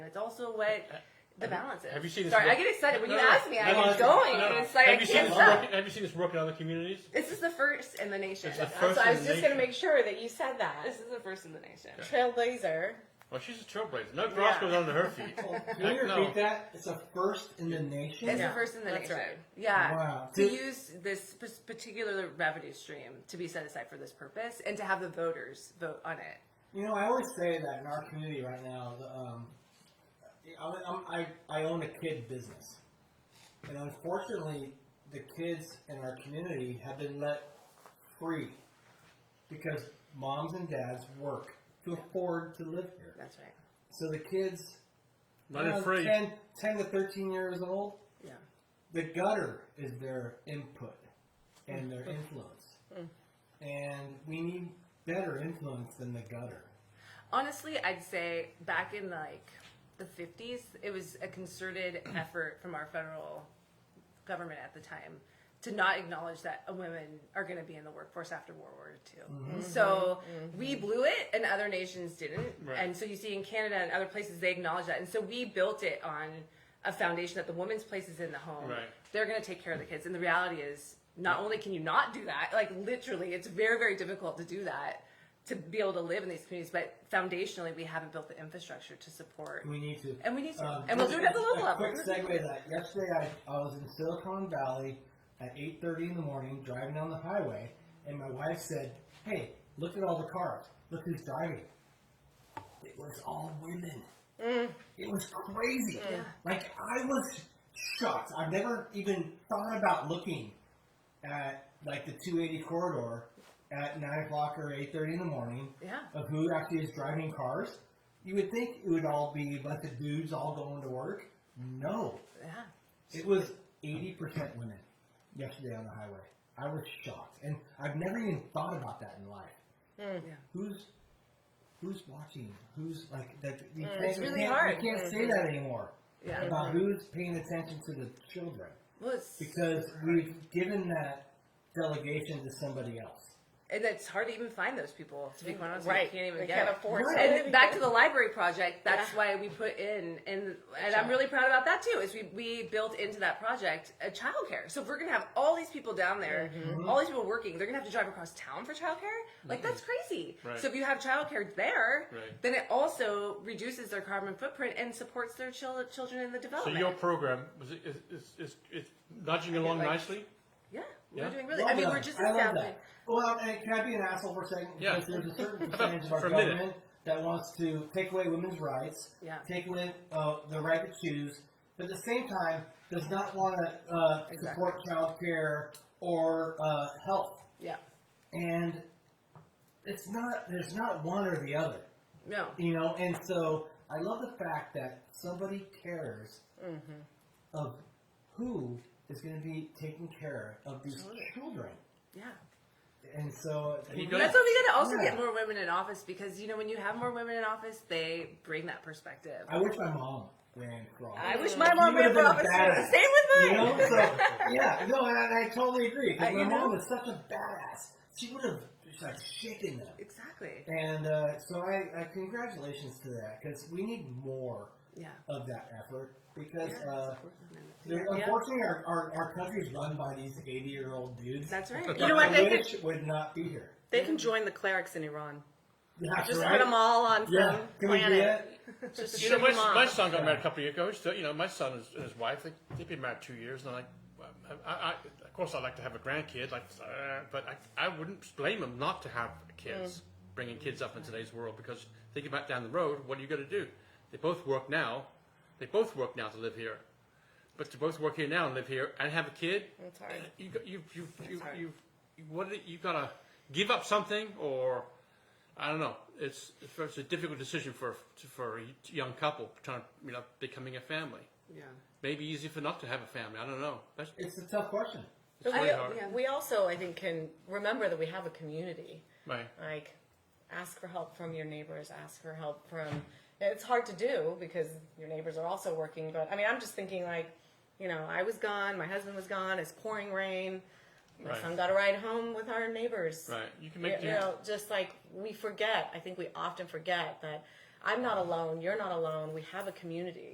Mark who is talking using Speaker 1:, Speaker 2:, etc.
Speaker 1: It's also what the balance is.
Speaker 2: Have you seen this
Speaker 1: Sorry,
Speaker 2: book-
Speaker 1: I get excited when
Speaker 2: No,
Speaker 1: you
Speaker 2: no, no.
Speaker 1: ask me. I
Speaker 2: No, no,
Speaker 1: get
Speaker 2: it's-
Speaker 1: going.
Speaker 2: no, no.
Speaker 1: and It's like I
Speaker 2: have you seen
Speaker 1: can't
Speaker 2: this
Speaker 1: stop.
Speaker 2: work? Have you seen this work in other communities?
Speaker 1: This is the first in the nation.
Speaker 2: It's the
Speaker 1: Uh,
Speaker 2: first
Speaker 1: so I
Speaker 2: in
Speaker 1: was
Speaker 2: the
Speaker 1: just going to
Speaker 2: nation.
Speaker 1: make sure that you.
Speaker 3: You said that.
Speaker 1: This is the first in the nation.
Speaker 3: Trailblazer.
Speaker 2: Well, she's a trailblazer. No grass
Speaker 3: Yeah.
Speaker 2: goes under her feet.
Speaker 4: Can you
Speaker 2: No.
Speaker 4: repeat that? It's a first in the nation.
Speaker 1: It's
Speaker 3: Yeah,
Speaker 1: the first in the
Speaker 3: that's
Speaker 1: nation.
Speaker 3: right.
Speaker 1: Yeah.
Speaker 4: Wow.
Speaker 1: To
Speaker 4: Did-
Speaker 1: use this p- particular revenue stream to be set aside for this purpose and to have the voters vote on it.
Speaker 4: You know, I always say that in our community right now, the, um, I, I'm- I, I own a kid business. And unfortunately, the kids in our community have been let free because moms and dads work to afford to live here.
Speaker 1: That's right.
Speaker 4: So the kids,
Speaker 2: Let
Speaker 4: you
Speaker 2: it
Speaker 4: know,
Speaker 2: free.
Speaker 4: 10, 10 to 13 years old,
Speaker 1: Yeah.
Speaker 4: the gutter is their input and their influence. And we need better influence than the gutter.
Speaker 1: Honestly, I'd say back in like the 50s, it was a concerted effort from our federal government at the time to not acknowledge that women are going to be in the workforce after World War II.
Speaker 2: Mm-hmm.
Speaker 1: So we blew it and other nations didn't.
Speaker 2: Right.
Speaker 1: And so you see in Canada and other places, they acknowledge that. And so we built it on a foundation that the woman's place is in the home.
Speaker 2: Right.
Speaker 1: They're going to take care of the kids. And the reality is, not only can you not do that, like literally, it's very, very difficult to do that to be able to live in these communities. But foundationally, we haven't built the infrastructure to support.
Speaker 3: Mm.
Speaker 4: We need to.
Speaker 1: And we need to. And we'll do it at the
Speaker 4: just
Speaker 1: local
Speaker 4: a
Speaker 1: level.
Speaker 4: Quick segue to that. Yesterday, I, I was in Silicon Valley at 8.30 in the morning, driving down the highway, and my wife said, hey, look at all the cars. Look who's driving. It was all women.
Speaker 1: Mm.
Speaker 4: It was crazy. Like, I was shocked. I've never even thought about looking at, like, the 280 corridor at 9 o'clock or 8.30 in the morning
Speaker 1: Yeah.
Speaker 4: of who actually is driving cars, you would think it would all be a bunch of dudes all going to work. No,
Speaker 1: Yeah.
Speaker 4: it was 80% women yesterday on the highway. I was shocked, and I've never even thought about that in life.
Speaker 1: Yeah.
Speaker 4: Who's who's watching? Who's like that? You can't,
Speaker 1: Hmm, it's
Speaker 4: you
Speaker 1: really
Speaker 4: can't-
Speaker 1: hard.
Speaker 4: You can't say that anymore
Speaker 1: Yeah.
Speaker 4: about who's paying attention to the children
Speaker 1: Well, it's,
Speaker 4: because we've given that delegation to somebody else.
Speaker 1: and it's hard to even find those people. To be quite honest, with you,
Speaker 3: Right.
Speaker 1: you can't even
Speaker 3: They
Speaker 1: get
Speaker 3: can't
Speaker 1: it.
Speaker 3: afford
Speaker 4: Right.
Speaker 3: it.
Speaker 1: And back to the library project. That's
Speaker 3: Yeah.
Speaker 1: why we put in, and and I'm really proud about that too. Is we we built into that project a childcare. So if we're gonna have all these people down there,
Speaker 2: Mm-hmm.
Speaker 1: all these people working, they're gonna have to drive across town for childcare. Like that's crazy.
Speaker 2: Mm-hmm. Right.
Speaker 1: So if you have childcare there,
Speaker 2: Right.
Speaker 1: then it also reduces their carbon footprint and supports their chil- children in the
Speaker 2: So
Speaker 1: development.
Speaker 2: your program was it, is, is, is, is nudging along
Speaker 1: like-
Speaker 2: nicely.
Speaker 1: yeah,
Speaker 2: Yeah.
Speaker 1: we're doing really.
Speaker 4: Well
Speaker 1: I mean,
Speaker 4: done.
Speaker 1: we're just
Speaker 4: I love
Speaker 1: establishing.
Speaker 4: that. Well, and can I be an asshole for a second?
Speaker 2: Yeah.
Speaker 4: Because there's a certain percentage of our
Speaker 2: For a minute.
Speaker 4: government that wants to take away women's rights,
Speaker 1: Yeah.
Speaker 4: take away uh, the right to choose, but at the same time does not want to uh, support child care or uh, health.
Speaker 1: Yeah.
Speaker 4: And it's not there's not one or the other,
Speaker 1: No.
Speaker 4: you know. And so I love the fact that somebody cares
Speaker 1: Mm-hmm.
Speaker 4: of who is going to be taking care of these children.
Speaker 1: Yeah.
Speaker 4: And so
Speaker 2: he
Speaker 4: Yeah.
Speaker 2: goes-
Speaker 1: That's why we gotta also
Speaker 4: Yeah.
Speaker 1: get more women in office because you know when you have more women in office, they bring that perspective.
Speaker 4: I wish my mom ran for office.
Speaker 1: I wish my mom
Speaker 4: You
Speaker 1: ran
Speaker 4: would've
Speaker 1: for office.
Speaker 4: been a badass.
Speaker 1: Same with
Speaker 4: You
Speaker 1: mine.
Speaker 4: know, so yeah, no, and I, I totally agree. 'cause
Speaker 1: I-
Speaker 4: my
Speaker 1: you know?
Speaker 4: mom was such a badass. She would have just like shaken them.
Speaker 1: exactly.
Speaker 4: And uh, so I, I congratulations to that because we need more
Speaker 1: Yeah.
Speaker 4: of that effort because uh,
Speaker 1: Yeah.
Speaker 4: there- unfortunately our, our, our country is run by these eighty year old dudes.
Speaker 1: That's right.
Speaker 3: You know what?
Speaker 4: I
Speaker 3: They could,
Speaker 4: wish would not be here.
Speaker 3: they can join the clerics in Iran.
Speaker 4: That's
Speaker 3: Just
Speaker 4: right.
Speaker 3: put them all on some
Speaker 4: Yeah, can we do
Speaker 3: planet.
Speaker 4: that?
Speaker 3: Just
Speaker 2: You know,
Speaker 3: ship
Speaker 2: my,
Speaker 3: them off.
Speaker 2: my son got married a couple of years ago. He's Still, you know, my son is- and his wife they they've been married two years, and I'm like, well, I, I, I- of course I'd like to have a grandkid, like, uh, but I, I wouldn't blame him not to have kids,
Speaker 3: Mm.
Speaker 2: bringing kids up in today's world because think about down the road, what are you going to do? They both work now, they both work now to live here, but to both work here now and live here and have a kid,
Speaker 3: That's hard.
Speaker 2: you got- you you you you you what do- you gotta give up something or I don't know. It's it's a difficult decision for for a young couple trying to you know becoming a family.
Speaker 1: Yeah.
Speaker 2: Maybe easy for not to have a family. I don't know. That's
Speaker 4: It's a tough question.
Speaker 2: it's really
Speaker 3: I-
Speaker 2: hard.
Speaker 1: yeah.
Speaker 3: We also, I think, can remember that we have a community.
Speaker 2: Right.
Speaker 3: Like, ask for help from your neighbors. Ask for help from. It's hard to do because your neighbors are also working. But I mean, I'm just thinking like, you know, I was gone. My husband was gone. It's pouring rain. My
Speaker 2: Right.
Speaker 3: son got a ride home with our neighbors.
Speaker 2: Right. You can make
Speaker 3: you
Speaker 2: do-
Speaker 3: know, just like we forget. I think we often forget that I'm not alone. You're not alone. We have a community.